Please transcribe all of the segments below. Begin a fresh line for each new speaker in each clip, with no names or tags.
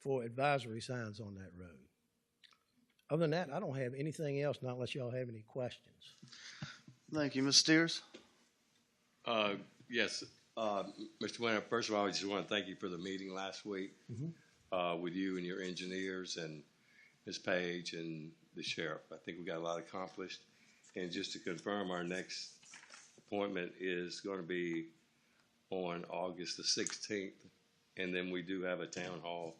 for advisory signs on that road. Other than that, I don't have anything else, not unless y'all have any questions.
Thank you, Ms. Steers.
Uh, Yes, uh, Mr. Winter, first of all, I just want to thank you for the meeting last week uh, with you and your engineers and Ms. Page and the sheriff. I think we got a lot accomplished. And just to confirm, our next appointment is going to be on August the 16th. And then we do have a town hall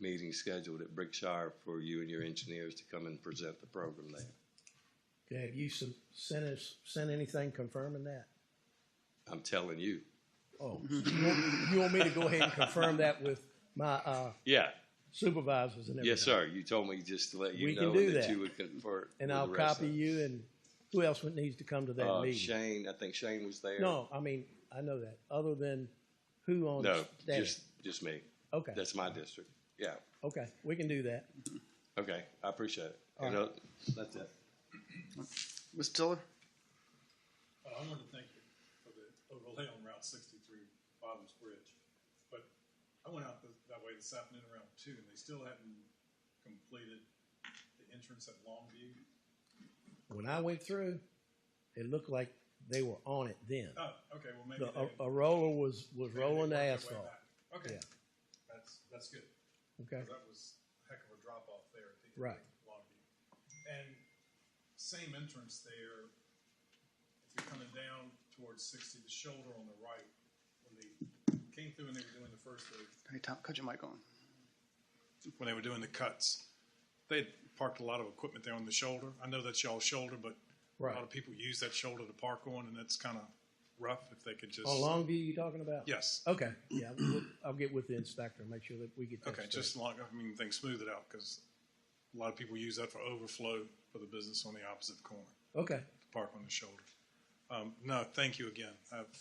meeting scheduled at Brickshire for you and your engineers to come and present the program there.
Okay, have you some- sent us, sent anything confirming that?
I'm telling you.
Oh, you want- you want me to go ahead and confirm that with my uh,
Yeah,
supervisors and everything?
yes, sir. You told me just to let
We
you
can
know
do
that
that.
you would convert. with
And
the
I'll
rest of
copy
us.
you and who else would needs to come to that
Uh,
meeting?
Shane, I think Shane was there.
No, I mean, I know that, other than who on
No,
staff.
just, just me.
Okay,
That's my district. Yeah.
okay, we can do that.
Okay. I appreciate it.
All
You know, That's it.
Ms. Tiller?
Uh, I wanted to thank you for the overlay on Route sixty-three, Bottoms Bridge. But I went out th- that way this afternoon around two, and they still hadn't completed the entrance at Longview.
When I went through, it looked like they were on it then.
Oh, okay, well, maybe
The,
they.
a, a roller was, was
maybe they
rolling the
worked their way
asphalt,
back. Okay,
Yeah.
that's, that's good,
okay?
'cause that was a heck of a drop-off there at the end
Right.
of Longview. And same entrance there, if you're coming down towards sixty, the shoulder on the right, when they came through and they were doing the first, they
Hey, Tom, cut your mic on.
when they were doing the cuts. They had parked a lot of equipment there on the shoulder. I know that's y'all's shoulder, but a lot
Right.
of people use that shoulder to park on, and that's kind of rough if they could just.
On Longview you talking about?
Yes.
Okay, yeah, we'll, I'll get with the inspector and make sure that we get that
Okay,
straight.
just long, I mean, things smooth it out because a lot of people use that for overflow for the business on the opposite corner,
Okay,
to park on the shoulder. Um, no, thank you again. I've,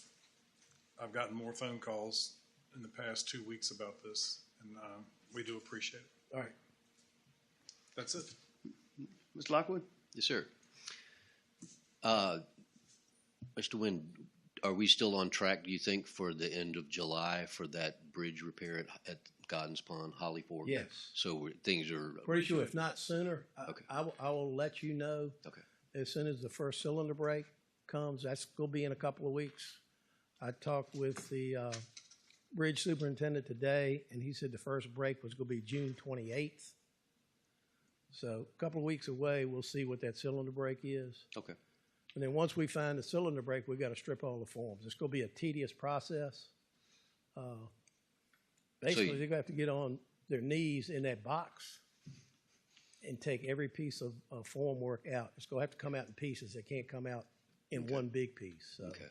I've gotten more phone calls in the past two weeks about this, and um, we do appreciate it.
all right.
That's it.
Ms. Lockwood?
Yes, sir. Uh, Mr. Wynn, are we still on track, do you think, for the end of July for that bridge repair at, at Goddens Pond, Holly Fork?
Yes.
So we're- things are.
Pretty sure if not sooner, I,
Okay.
I will, I will let you know
Okay.
as soon as the first cylinder break comes. That's gonna be in a couple of weeks. I talked with the, uh, bridge superintendent today and he said the first break was gonna be June twenty-eighth. So a couple of weeks away, we'll see what that cylinder break is.
Okay.
And then once we find the cylinder break, we've got to strip all the forms. It's going to be a tedious process. Uh, Basically,
you-
they're going to have to get on their knees in that box and take every piece of, of form work out. It's going to have to come out in pieces. It can't come out in one big piece. So.
Okay.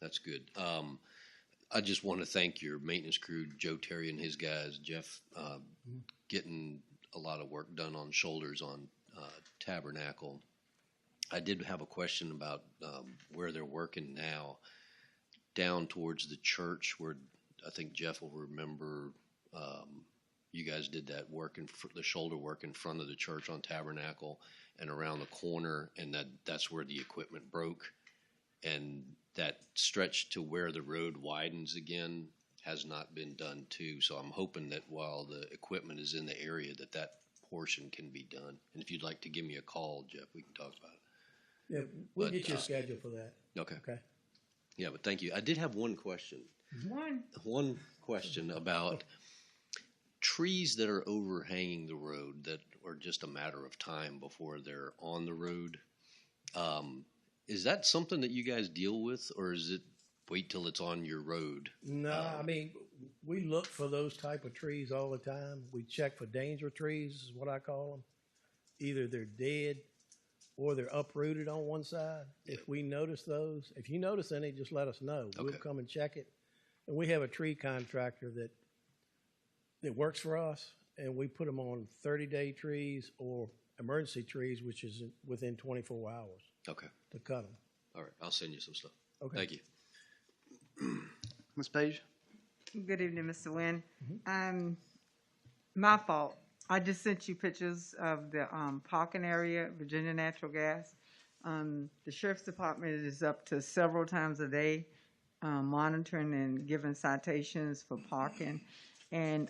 That's good. Um, I just want to thank your maintenance crew, Joe Terry and his guys, Jeff, uh, getting a lot of work done on shoulders on uh, Tabernacle. I did have a question about um, where they're working now, down towards the church, where I think Jeff will remember um, you guys did that work in fr- the shoulder work in front of the church on Tabernacle and around the corner, and that that's where the equipment broke and that stretch to where the road widens again has not been done too. So I'm hoping that while the equipment is in the area, that that portion can be done. And if you'd like to give me a call, Jeff, we can talk about
Yeah, we'll
But,
get you a
uh,
schedule for that.
it. Okay.
Okay.
Yeah, but thank you. I did have one question. One. One question about trees that are overhanging the road that are just a matter of time before they're on the road. Um, is that something that you guys deal with, or is it wait till it's on your road?
No, I
Um,
mean, we look for those type of trees all the time. We check for danger trees, is what I call them. Either they're dead or they're uprooted on one side. If we notice those, if you notice any, just let us know. We'll
Okay.
come and check it. And we have a tree contractor that that works for us, and we put them on thirty-day trees or emergency trees, which is within twenty-four hours
Okay.
to cut them.
All right. I'll send you some stuff.
Okay.
Thank you.
Ms. Page?
Good evening, Mr. Nguyen. Um, my fault. I just sent you pictures of the, um, Pockin area, Virginia Natural Gas. Um, the sheriff's department is up to several times a day, um, monitoring and giving citations for parking. And,